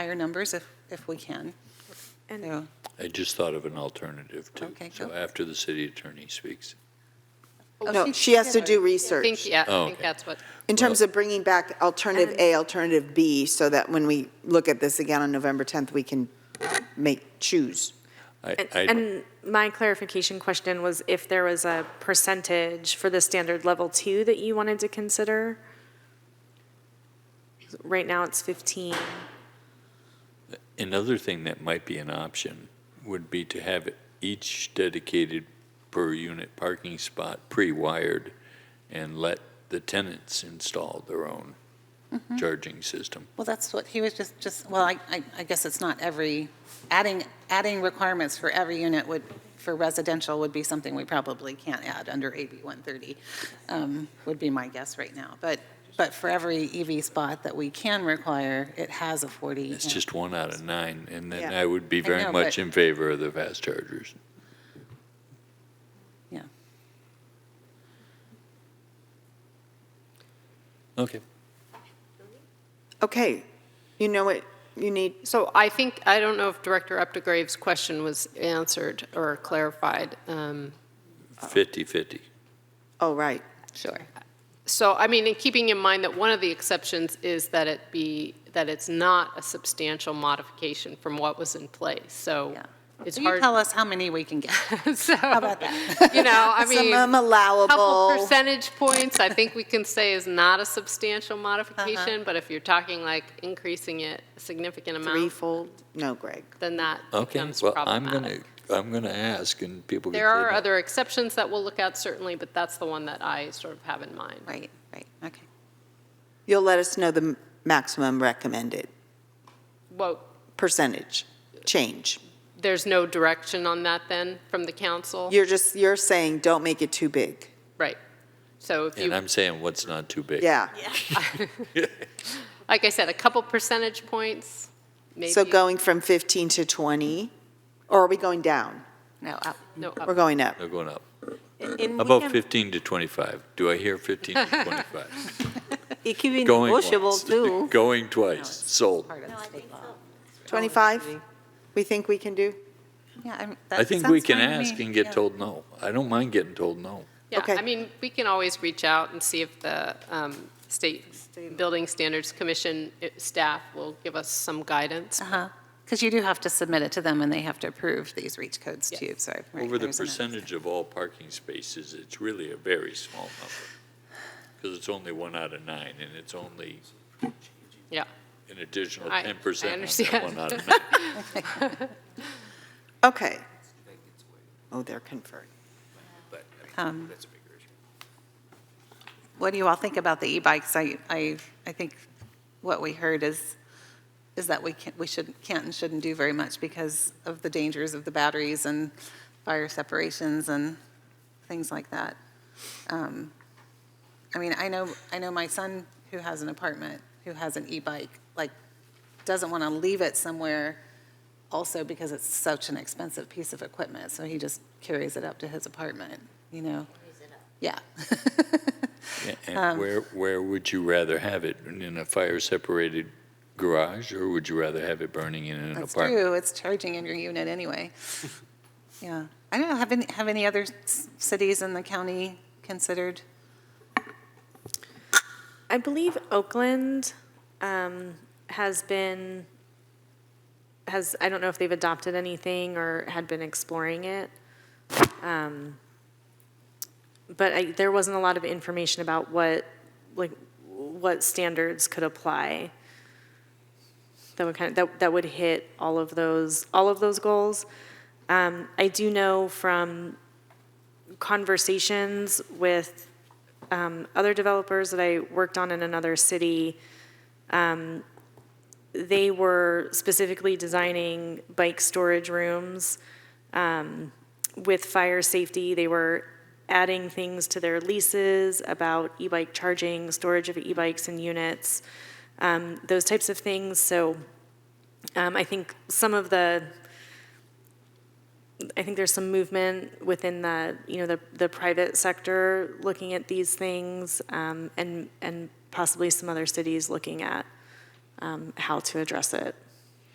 higher numbers if, if we can. And So, I just thought of an alternative, too. Okay, So go. after the city attorney speaks. No, she has to do I Oh, think, research yeah, Oh, I think okay. that's what, in terms of bringing back alternative A, alternative B, so that when we look at this again on November 10th, we can make, choose. I- and- I- and my clarification question was if there was a percentage for the standard level two that you wanted to consider? Right now, it's 15. Another thing that might be an option would be to have each dedicated per unit parking spot pre-wired and let the tenants install their own Mm-hmm. charging system. Well, that's what he was just, just, well, I, I- I guess it's not every, adding, adding requirements for every unit would, for residential would be something we probably can't add under AB 130, um, would be my guess right now. But, but for every EV spot that we can require, it has a 40. It's just one out of nine, and then Yeah. I would be very know, much but- in favor of the fast chargers. Yeah. Okay. Okay, you know what you need? so I think, I don't know if Director Updegrave's question was answered or clarified. um, 50/50. Oh, right. Sure. So, I mean, and keeping in mind that one of the exceptions is that it be, that it's not a substantial modification from what was in place, so Yeah. it's So you hard. tell us how many we can get. So, about you know, I mean. Maximum couple allowable. percentage points, I think we can say is not a substantial Uh-huh. modification, but if you're talking like increasing it a significant amount, Threefold? No, Greg. then that Okay, becomes well, I'm going problematic. to, I'm going to ask, and people can There say are no. other exceptions that we'll look at certainly, but that's the one that I sort of have in mind. Right, right, okay. You'll let us know the m- maximum recommended Well, percentage change. there's no direction on that then from the council? You're just, you're saying, don't make it too big. Right. So if And you, I'm saying what's not too big. Yeah. like I said, a couple percentage points, maybe. So going from 15 to 20, or are we going down? No, up. No, up. We're going up. They're going up. And we About can- 15 to 25. Do I hear 15 to 25? It could be Going negotiable once, too. Going twice, sold. Part of state law. 25, we think we can do? Yeah, I'm- that I think we sounds can fine to ask me. and Yeah. get told no. I don't mind getting told no. Yeah, Okay. I mean, we can always reach out and see if the um, State Building Standards Commission uh, staff will give us some guidance. Uh-huh, because you do have to submit it to them, and they have to approve these reach codes too, so. right, Over the there's another- percentage of all parking spaces, it's really a very small number. Because it's only one out of nine, and it's only Yeah, an additional I- 10% I on that understand. one out of nine. Okay. Oh, they're conferring. Um, What do you all think about the e-bikes? I, I, I think what we heard is, is that we can't, we should, can't and shouldn't do very much because of the dangers of the batteries and fire separations and things like that. Um, I mean, I know, I know my son who has an apartment, who has an e-bike, like, doesn't want to leave it somewhere also because it's such an expensive piece of equipment, so he just carries it up to his apartment, you know? Yeah. Um, And where, where would you rather have it? In a fire-separated garage, or would you rather have it burning in an That's apartment? true, it's charging in your unit anyway. Yeah. I don't know, have any, have any other s- cities in the county considered? I believe Oakland um, has been, has, I don't know if they've adopted anything or had been exploring it. Um, But I, there wasn't a lot of information about what, like, what standards could apply that would kind of, that, that would hit all of those, all of those goals. Um, I do know from conversations with um, other developers that I worked on in another city, um, they were specifically designing bike storage rooms um, with fire safety. They were adding things to their leases about e-bike charging, storage of e-bikes in units, um, those types of things. So um, I think some of the I think there's some movement within the, you know, the, the private sector looking at these things, um, and, and possibly some other cities looking at, um, how to address it.